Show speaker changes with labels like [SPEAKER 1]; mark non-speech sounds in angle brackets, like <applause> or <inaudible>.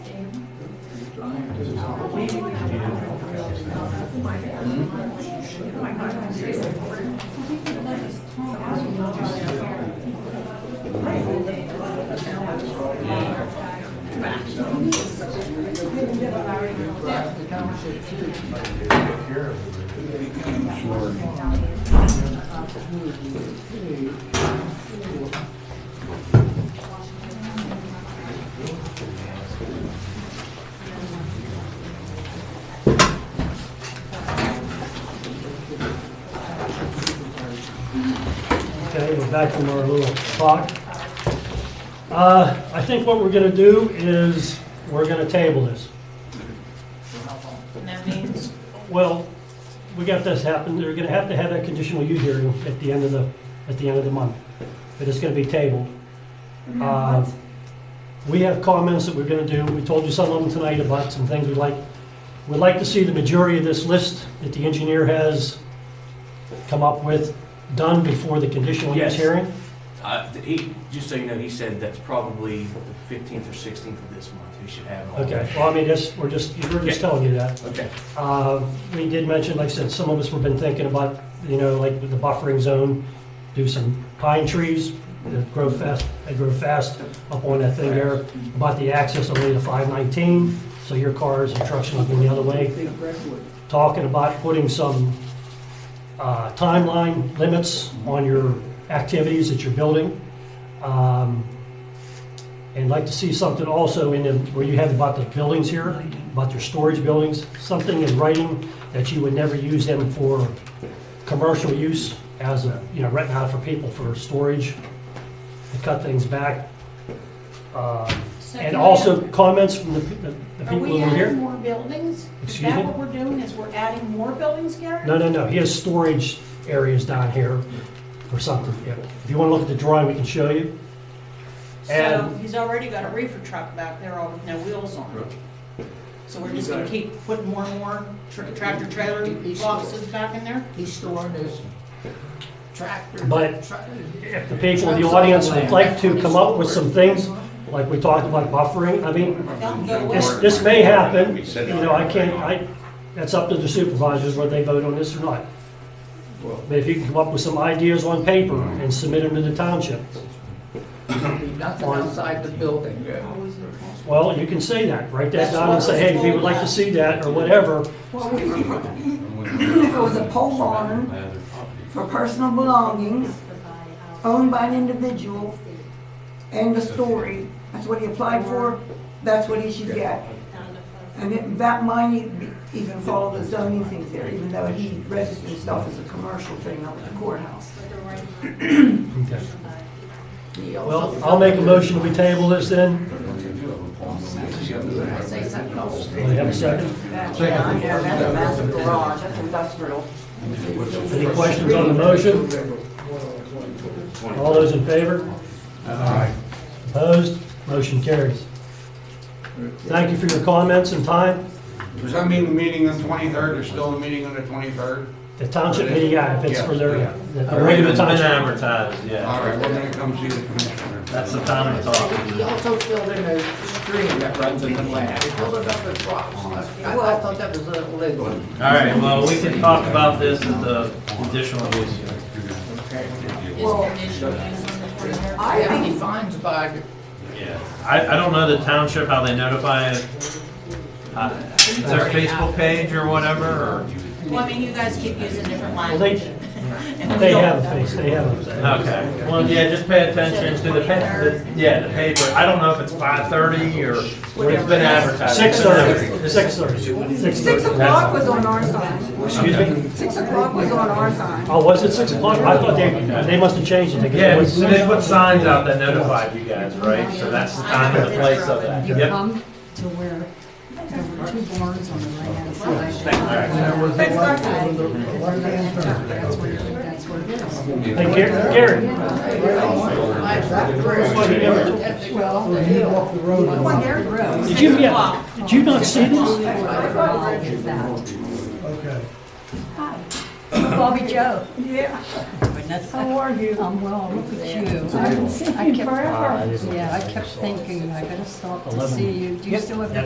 [SPEAKER 1] Okay, we're back from our little clock. Uh, I think what we're gonna do is, we're gonna table this.
[SPEAKER 2] And that means,
[SPEAKER 1] Well, we got this happen, they're gonna have to have that conditional use hearing at the end of the, at the end of the month. But it's gonna be tabled. Uh, We have comments that we're gonna do, we told you some of them tonight about some things we'd like, we'd like to see the majority of this list that the engineer has come up with done before the conditional use
[SPEAKER 3] Yes.
[SPEAKER 1] hearing.
[SPEAKER 3] Uh, th- He, just so you know, he said that's probably the 15th or 16th of this month, we should have it all.
[SPEAKER 1] Okay, well, I mean, just, we're just, we're just
[SPEAKER 3] Yeah.
[SPEAKER 1] telling you that.
[SPEAKER 3] Okay,
[SPEAKER 1] Uh, We did mention, like I said, some of us have been thinking about, you know, like with the buffering zone, do some pine trees that grow fast, they grow fast up on that thing there, about the access only to 519, so your cars and trucks will go the other way. Talking about putting some uh, timeline limits on your activities that you're building. Um, And like to see something also in, the- where you have about the buildings here, about your storage buildings, something in writing that you would never use them for commercial use as a, you know, renting out for people for storage, to cut things back. Um,
[SPEAKER 2] So
[SPEAKER 1] And
[SPEAKER 2] do we
[SPEAKER 1] also
[SPEAKER 2] have-
[SPEAKER 1] comments from the the- the
[SPEAKER 2] are
[SPEAKER 1] people
[SPEAKER 2] we
[SPEAKER 1] who were
[SPEAKER 2] adding
[SPEAKER 1] here?
[SPEAKER 2] more buildings? Is
[SPEAKER 1] Excuse me?
[SPEAKER 2] that what we're doing, is we're adding more buildings, Gary?
[SPEAKER 1] No, no, no, he has storage areas down here or something. Yeah. If you want to look at the drawing, we can show you.
[SPEAKER 2] So
[SPEAKER 1] and-
[SPEAKER 2] he's already got a reefer truck back there all with no wheels on it. So we're just gonna keep putting more and more tr- tractor trailer boxes back in there?
[SPEAKER 4] He's storing his tractor.
[SPEAKER 1] But
[SPEAKER 4] truck-
[SPEAKER 1] If the people in the audience would like to come up with some things, like we talked about buffering, I mean,
[SPEAKER 2] That'll go away.
[SPEAKER 1] This, this may happen, you know, I can't, I, that's up to the supervisors whether they vote on this or not. But if you can come up with some ideas on paper and submit them to the township,
[SPEAKER 4] There'll be Nothing outside the building.
[SPEAKER 1] well, you can say that, write that down and say, hey, we would like to see that, or whatever.
[SPEAKER 5] Well, If it was a pole barn <laughs> for personal belongings owned by an individual and the story, that's what he applied for, that's what he should get. And it- that might e- be- even follow the zoning things there, even though he registered stuff as a commercial thing up at the courthouse.
[SPEAKER 4] He also-
[SPEAKER 1] Well, I'll make a motion, we table this then.
[SPEAKER 4] I Say something else.
[SPEAKER 1] Do I have a second?
[SPEAKER 4] Yeah, I know, that's a massive garage, that's industrial.
[SPEAKER 1] Any questions on the motion? All those in favor? Opposed? Motion carries. Thank you for your comments and time.
[SPEAKER 6] Does that mean the meeting on the 23rd, there's still a meeting on the 23rd?
[SPEAKER 1] The township meeting, yeah, if it's for their, yeah. the
[SPEAKER 7] The rate
[SPEAKER 1] regular
[SPEAKER 7] has been
[SPEAKER 1] township.
[SPEAKER 7] advertised, yeah.
[SPEAKER 6] All right, we're gonna come see the commissioner.
[SPEAKER 7] That's the time to
[SPEAKER 4] He
[SPEAKER 7] talk.
[SPEAKER 4] also filled in a stream that runs in the Oh, land. He filled it up with rocks. I I thought that was illegal.
[SPEAKER 7] All right, well, we can talk about this at the additional use hearing.
[SPEAKER 2] Is conditional use on the perimeter?
[SPEAKER 4] I think he finds by,
[SPEAKER 7] Yeah. I, I don't know the township, how they notify it. Uh, Is there a Facebook page or whatever, or?
[SPEAKER 2] Well, I mean, you guys keep using different
[SPEAKER 1] Well, they,
[SPEAKER 2] language. <laughs>
[SPEAKER 7] um,
[SPEAKER 2] And we
[SPEAKER 1] they
[SPEAKER 2] don't-
[SPEAKER 1] have a face, they have a.
[SPEAKER 7] Okay, well, yeah, just pay attention to the, pa- the- yeah, the paper. I don't know if it's five thirty or, it's been advertised.
[SPEAKER 1] Six thirty, six thirty, six
[SPEAKER 5] Six
[SPEAKER 1] thirty.
[SPEAKER 5] o'clock was on our side.
[SPEAKER 1] Excuse me?
[SPEAKER 5] Six o'clock was on our side.
[SPEAKER 1] Oh, was it six o'clock? I thought they, they must have changed it.
[SPEAKER 7] Yeah, so they put signs out that notified you guys, right? So that's the time and the place of that.
[SPEAKER 8] You
[SPEAKER 7] Yep.
[SPEAKER 8] come to where there were two barns on the right hand
[SPEAKER 7] All
[SPEAKER 8] side.
[SPEAKER 7] right.
[SPEAKER 5] Thanks, Mark.
[SPEAKER 8] That's where, that's where it is.
[SPEAKER 1] Hey, Gar- Gary,
[SPEAKER 4] by that bridge.
[SPEAKER 1] Well, he never-
[SPEAKER 4] Well, the hill.
[SPEAKER 5] Come on, Gary.
[SPEAKER 1] did you, yeah, did you not see this?
[SPEAKER 8] <laughs> Bobby Joe.
[SPEAKER 5] Yeah. How are you?
[SPEAKER 8] Um, well, look at you. I- I kept- Yeah, I kept thinking, I gotta stop to see you. Do you still have